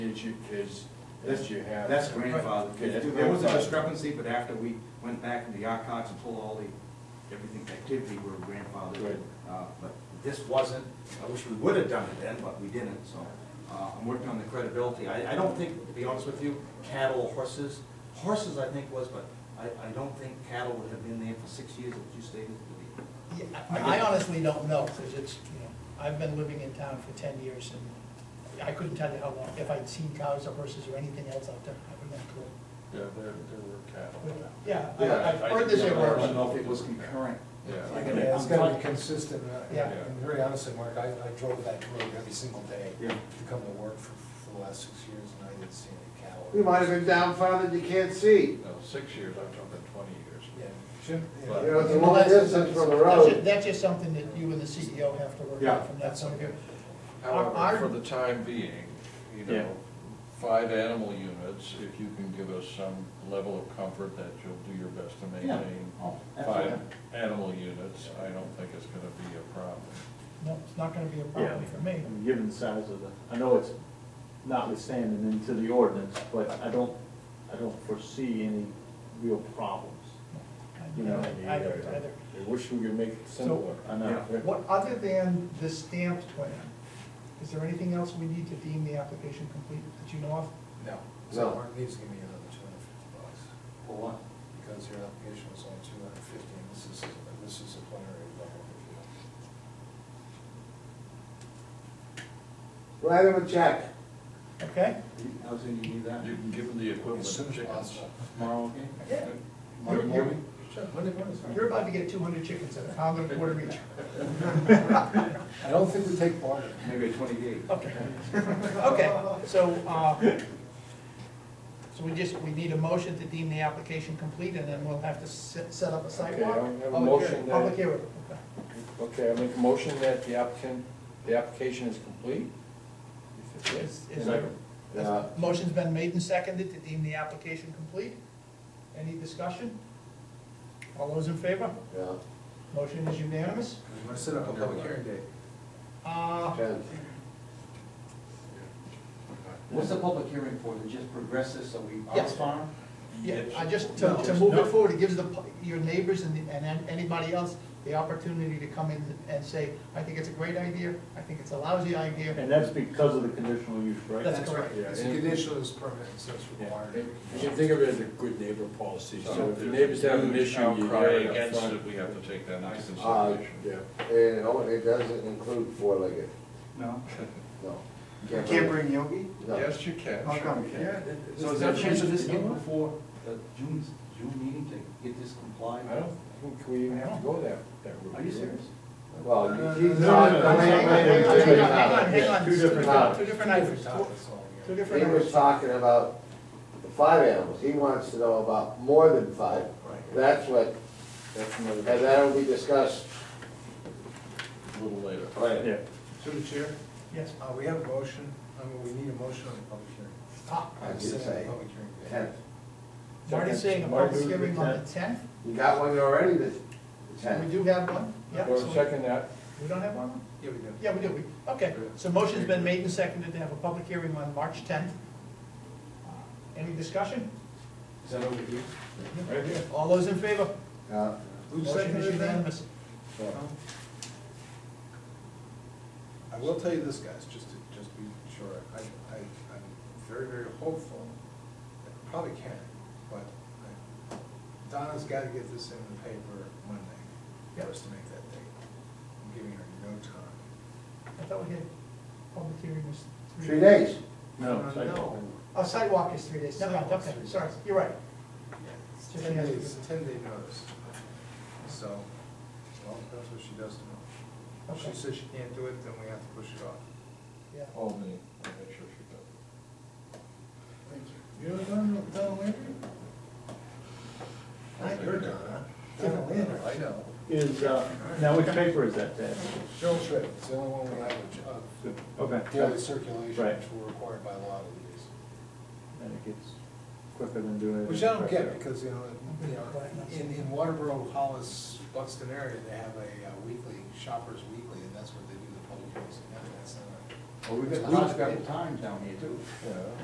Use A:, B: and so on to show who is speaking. A: is you, is,
B: That's-
A: is you have.
B: That's grandfathered.
A: Okay, that's
B: There was a
A: grandfathered.
B: discrepancy, but after we went back into the archives and pulled all the, everything, activity, we were grandfathered.
A: Good.
B: Uh, But this wasn't, I wish we would have done it then, but we didn't, so uh, I'm working on the credibility. I, I don't think, to be honest with you, cattle, horses, horses I think was, but I, I don't think cattle would have been there for six years, as you stated. to be.
C: Yeah,
B: I
C: I
B: get-
C: honestly don't know, because it's, you know, I've been living in town for ten years, and I couldn't tell you how long, if I'd seen cows or horses or anything else out there, I wouldn't have clue.
A: Yeah, there, there were cattle.
C: Yeah,
A: Yeah,
C: I- I've
A: I-
C: heard this
A: yeah, word.
B: I don't
C: everywhere.
B: know if it was concurrent.
A: Yeah.
D: Yeah, it's gotta be consistent, uh,
C: Yeah.
D: and very honestly, Mark, I, I drove that road every single day
B: Yeah.
D: to come to work for, for the last six years, and I didn't see any cattle.
E: We might have been down farther than you can't see.
A: No, six years, I'm talking twenty years.
D: Yeah, shouldn't,
A: But-
D: yeah.
E: You know, it's a long distance from the
C: That's ju-
E: road.
C: That's just something that you and the CEO have to work
B: Yeah,
C: out from that point of view. Our- our-
A: However, for the time being, you
F: Yeah.
A: know, five animal units, if you can give us some level of comfort that you'll do your best to maintain
B: Oh,
A: five
B: absolutely.
A: animal units, I don't think it's gonna be a problem.
C: No, it's not gonna be a
F: Yeah,
C: problem for me.
F: and given the size of the, I know it's notwithstanding into the ordinance, but I don't, I don't foresee any real problems.
C: I-
F: You know,
C: I I don't either.
A: I wish we could make it simpler.
F: I know.
A: Yeah.
C: What, other than the stamped plan, is there anything else we need to deem the application complete that you know of?
D: No,
E: No.
D: so Mark needs to give me another two hundred and fifty bucks,
B: For what?
D: because your application was only two hundred and fifty, and this is, this is a plenary level review.
E: Write him a check.
C: Okay?
B: I was in, you need that?
A: You can give them the equivalent
D: As soon
A: of
D: as
A: chickens.
D: possible.
B: Tomorrow, okay?
C: Yeah.
B: Tomorrow
C: You're-
B: morning?
D: Sure, Monday morning's fine.
C: You're about to get two hundred chickens at a pound and a quarter each.
D: I don't think we take barter.
B: Maybe a twenty-eight.
C: Okay, okay, so, uh, so we just, we need a motion to deem the application complete, and then we'll have to set, set up a sidewalk?
A: Okay, I have a
C: Public
A: motion
C: hearing-
A: that-
C: Public hearing, okay.
A: Okay, I make a motion that the applicant, the application is complete? If it
C: Is- is there-
A: Yeah.
C: Motion's been made and seconded to deem the application complete. Any discussion? All those in favor?
E: Yeah,
C: Motion is unanimous.
D: You wanna set up a public hearing date?
C: Uh,
E: ten.
B: What's the public hearing for, to just progress this so we, our
C: Yes.
B: farm?
C: Yeah, I just, to, to move it forward, it gives the, pu- your neighbors and, the- and an- anybody else the opportunity to come in and say, I think it's a great idea, I think it's a lousy idea.
F: And that's because of the conditional use, right?
C: That's correct.
D: It's a conditional use permit, so it's required.
G: You should think of it as a good neighbor policy,
A: So
G: so if the neighbors have an issue, you
A: Outcry
G: hear it up
A: against
G: front.
A: it, we have to take that into
E: Uh,
A: consideration.
E: yeah, and oh, it doesn't include four-legged,
B: No.
E: no.
B: Can't bring Yogi?
E: No.
A: Yes, you can.
B: How come?
A: sure you
G: Yeah, it-
A: can.
G: it's-
B: So is there a chance of this getting before the June, June meeting to get this complied?
A: I don't think we even have to go that, that route.
B: Are you serious?
E: Well, you- he's
C: Hang on,
E: not.
C: hang on, hang on, hang on, hang on.
F: Two different
E: topics.
C: Two different
D: Different
C: items,
D: topics all
C: two
D: year.
C: different
E: He was
C: items.
E: talking about the five animals, he wants to know about more than five.
D: Right.
E: That's what,
A: That's
E: and
A: another,
E: that'll be discussed
A: a little later.
E: later.
F: Yeah.
D: Through the chair,
C: Yes,
D: uh, we have a motion, I mean, we need a motion on the public hearing.
C: ah,
E: I did
D: Set up a
E: say
D: Public hearing date.
E: Tenth.
C: Marty's saying a public hearing on the tenth,
E: You got one already, the the
C: we
E: tenth.
C: do have one, yeah,
A: Or
C: so we-
A: second that,
C: we don't have one?
D: Yeah, we do.
C: Yeah, we do, We- okay, so motion's been made and seconded to have a public hearing on March tenth. Uh, Any discussion?
B: Is that over here?
A: right here.
C: All those in favor?
E: Yeah.
D: Who
C: Motion is
D: seconded that?
C: unanimous.
D: I will tell you this, guys, just to, just to be sure, I, I, I'm very, very hopeful, I probably can't, but I- Donna's gotta get this in the paper Monday, for us to make that date. I'm giving her no time.
C: I thought we had public hearing was three.
E: Three days.
F: No, it's like-
D: No.
C: A sidewalk is three days, never mind, okay, sorry, you're right.
D: Yeah, it's
C: Just
D: Ten
C: has to
D: days,
C: be-
D: ten day notice. So, well, that's what she does tomorrow. If
C: Okay.
D: she says she can't do it, then we have to push it off.
C: Yeah.
A: Oh, me, I'll make sure she does.
D: Thank you. You know Donna, Donna Landry?
A: Not your Donna.
D: Donna Landry. I know.
F: Is, uh, now which paper is that, Ted?
D: Cheryl Shred, it's the only one we have of
F: Okay.
D: daily circulation,
F: Right.
D: which we're required by law to
F: And it gets quicker than doing
D: use.
F: it.
D: Which I don't get, because, you know, you know,
C: Right.
D: in, in Waterboro, Hollis, Buxton area, they have a uh, weekly, Shoppers Weekly, and that's what they do the public hearings. and that's not a-
B: Well, we've got, we've got the time down here too.
A: Yeah.